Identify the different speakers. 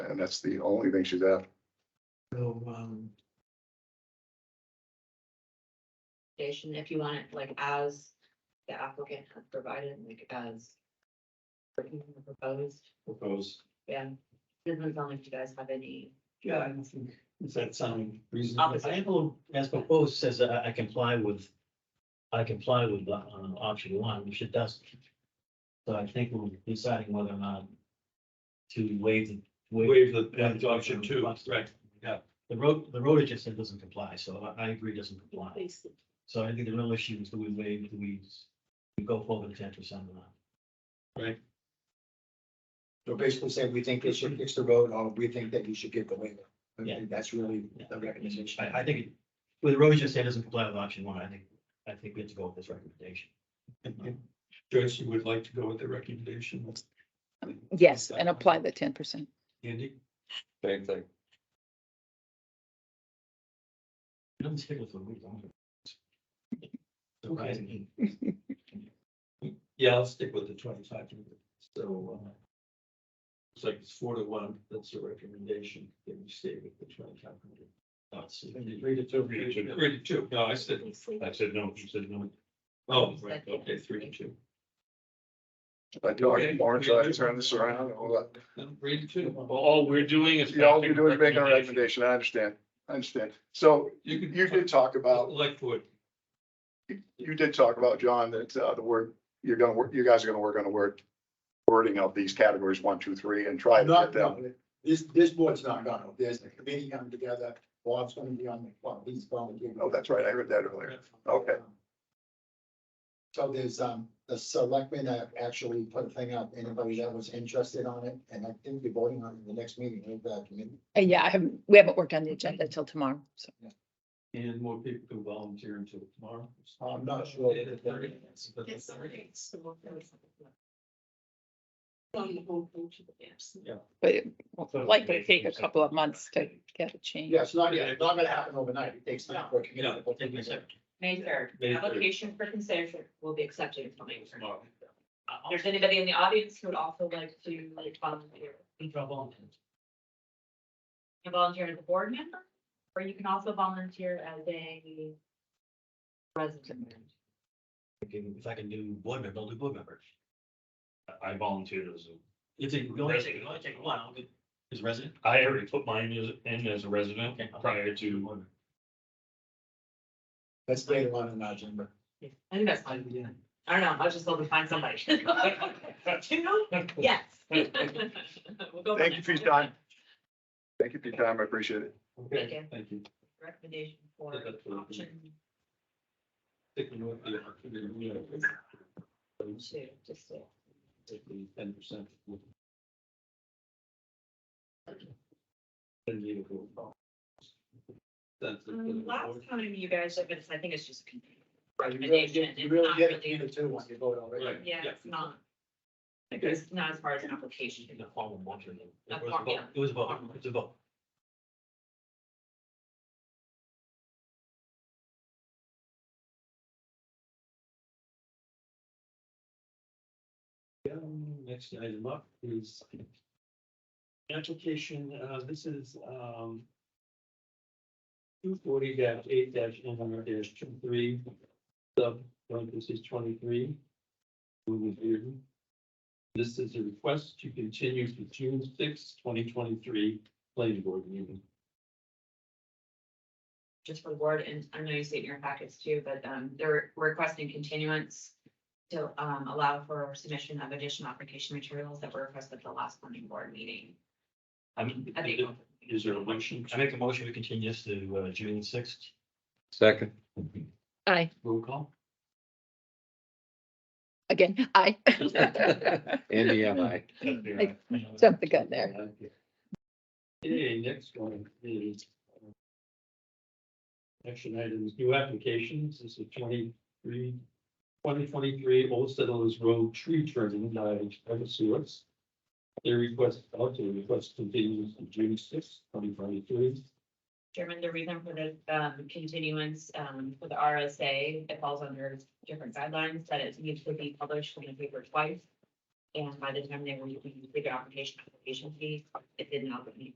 Speaker 1: and that's the only thing she's after.
Speaker 2: So, um,
Speaker 3: application, if you want it like as the applicant has provided, like as written or proposed,
Speaker 4: Propose.
Speaker 3: yeah. Depends on if you guys have any,
Speaker 2: yeah, I don't think,
Speaker 4: Does that sound reasonable?
Speaker 5: Uh,
Speaker 3: Opposite.
Speaker 5: Example, as proposed, says that I I comply with, I comply with uh, option one, which it doesn't. So I think we're deciding whether or not to waive the.
Speaker 4: Waive the uh, option two, right? Yeah.
Speaker 5: The road, the road agent said doesn't comply, so I, I agree doesn't comply.
Speaker 3: basically,
Speaker 5: So I think the real issue is do we waive, do we, we go forward with ten percent or not?
Speaker 6: So basically saying, we think they should fix the road, or we think that you should give the waiver. I
Speaker 5: Yeah.
Speaker 6: think that's really the recommendation.
Speaker 5: I, I think, it- well, the road agent said doesn't comply with option one, I think, I think we have to go with this recommendation.
Speaker 4: Joyce, you would like to go with the recommendation,
Speaker 7: Yes, and apply the ten percent.
Speaker 4: Andy?
Speaker 8: Same thing.
Speaker 5: It doesn't stick with the root, don't it? Surprising.
Speaker 4: Yeah, I'll stick with the twenty-five. So, uh, it's like it's four to one, that's the recommendation, that we stay with the twenty-five hundred.
Speaker 5: Thoughts.
Speaker 4: Three to two. Three to two, no, I said,
Speaker 8: I said no, you said no.
Speaker 4: oh, right, okay, three to two.
Speaker 1: I talked to Lawrence, I turned this around and all that.
Speaker 4: No, Three to two.
Speaker 8: All we're doing is.
Speaker 1: You all you're doing is making a recommendation. I understand. I understand. So
Speaker 4: You could.
Speaker 1: you did talk about,
Speaker 4: Like what?
Speaker 1: you did talk about, John, that uh, the word, you're gonna work, you guys are gonna work on the word wording of these categories, one, two, three, and try to get
Speaker 6: Not,
Speaker 1: them.
Speaker 6: no, this, this board's not gonna, there's a committee coming together, Bob's gonna be on the, well, he's volunteering.
Speaker 1: Oh, that's right. I heard that earlier. Okay.
Speaker 6: So there's, um, the selectmen have actually put a thing out, anybody that was interested on it, and I think you're voting on it in the next meeting, right, the committee?
Speaker 7: And yeah, I haven't, we haven't worked on the agenda till tomorrow, so.
Speaker 4: And more people can volunteer until tomorrow.
Speaker 6: I'm not sure.
Speaker 4: Yeah, the 30th, it's the
Speaker 3: It's
Speaker 4: 30th.
Speaker 3: On the whole page of the yes.
Speaker 7: But it will likely take a couple of months to get a change.
Speaker 6: Yeah, it's not, it's not gonna happen overnight, it takes time for a committee. to put
Speaker 5: Take me a
Speaker 6: together.
Speaker 5: second.
Speaker 3: May third,
Speaker 4: May third.
Speaker 3: application for consideration will be accepted until May third.
Speaker 4: Tomorrow.
Speaker 3: If there's anybody in the audience who would also like to like volunteer, you can volunteer as a board member, or you can also volunteer as a resident.
Speaker 5: If I can do board member, I'll do board member.
Speaker 8: I volunteered as, a-
Speaker 5: If you only take, you only take one, I'll get, is resident.
Speaker 8: I already put mine as- in as a resident
Speaker 5: Okay.
Speaker 8: prior to,
Speaker 6: That's later on in the agenda.
Speaker 3: I think that's fine. I don't know, I was just hoping to find somebody. You know, yes. We'll go from
Speaker 1: Thank you for your
Speaker 3: there.
Speaker 1: time. Thank you for your time. I appreciate it.
Speaker 3: Thank
Speaker 4: Okay,
Speaker 3: you.
Speaker 4: thank you.
Speaker 3: Recommendation for
Speaker 4: Yeah, that's what I'm doing.
Speaker 3: option
Speaker 4: Sticking with the opportunity, you know,
Speaker 3: two, just so.
Speaker 4: take the ten percent. That's. the-
Speaker 3: Um, Last time you guys have been, I think it's just,
Speaker 6: You really get, you really get it in the two when you vote already.
Speaker 4: Right,
Speaker 3: yeah, it's not. Like, it's not as far as an application.
Speaker 5: In the form of motion. It
Speaker 3: That's
Speaker 5: was
Speaker 3: fine,
Speaker 5: a vote.
Speaker 3: yeah.
Speaker 5: It was a vote, it was a vote.
Speaker 4: Um, Next item up is application, uh, this is, um, two forty eight dash N R dash two three, sub parentheses twenty-three. Louis Bearden. This is a request to continue to June sixth, twenty twenty-three, planning board meeting.
Speaker 3: just for the board, and I know you see it in your packets too, but um, they're requesting continuance to um, allow for submission of additional application materials that were requested at the last planning board meeting.
Speaker 5: I'm,
Speaker 3: I think-
Speaker 4: Is there a motion?
Speaker 5: I make a motion to continue this to uh, June sixth.
Speaker 8: second,
Speaker 7: Aye,
Speaker 4: Roll call?
Speaker 7: again, aye.
Speaker 8: Andy, am I?
Speaker 7: I Jumped the gun there.
Speaker 5: uh,
Speaker 4: Okay, next one is. um, Action items, new applications, this is 23 2023 Old Settlers Road Tree Trimming by Ever Source. Their request, also request continues to June sixth, twenty twenty-three.
Speaker 3: Chairman, the reason for the um, continuance um, for the RSA, it falls under different guidelines, that it needs to be published in the paper twice. And by the time they were looking at the application, application fees, it did not meet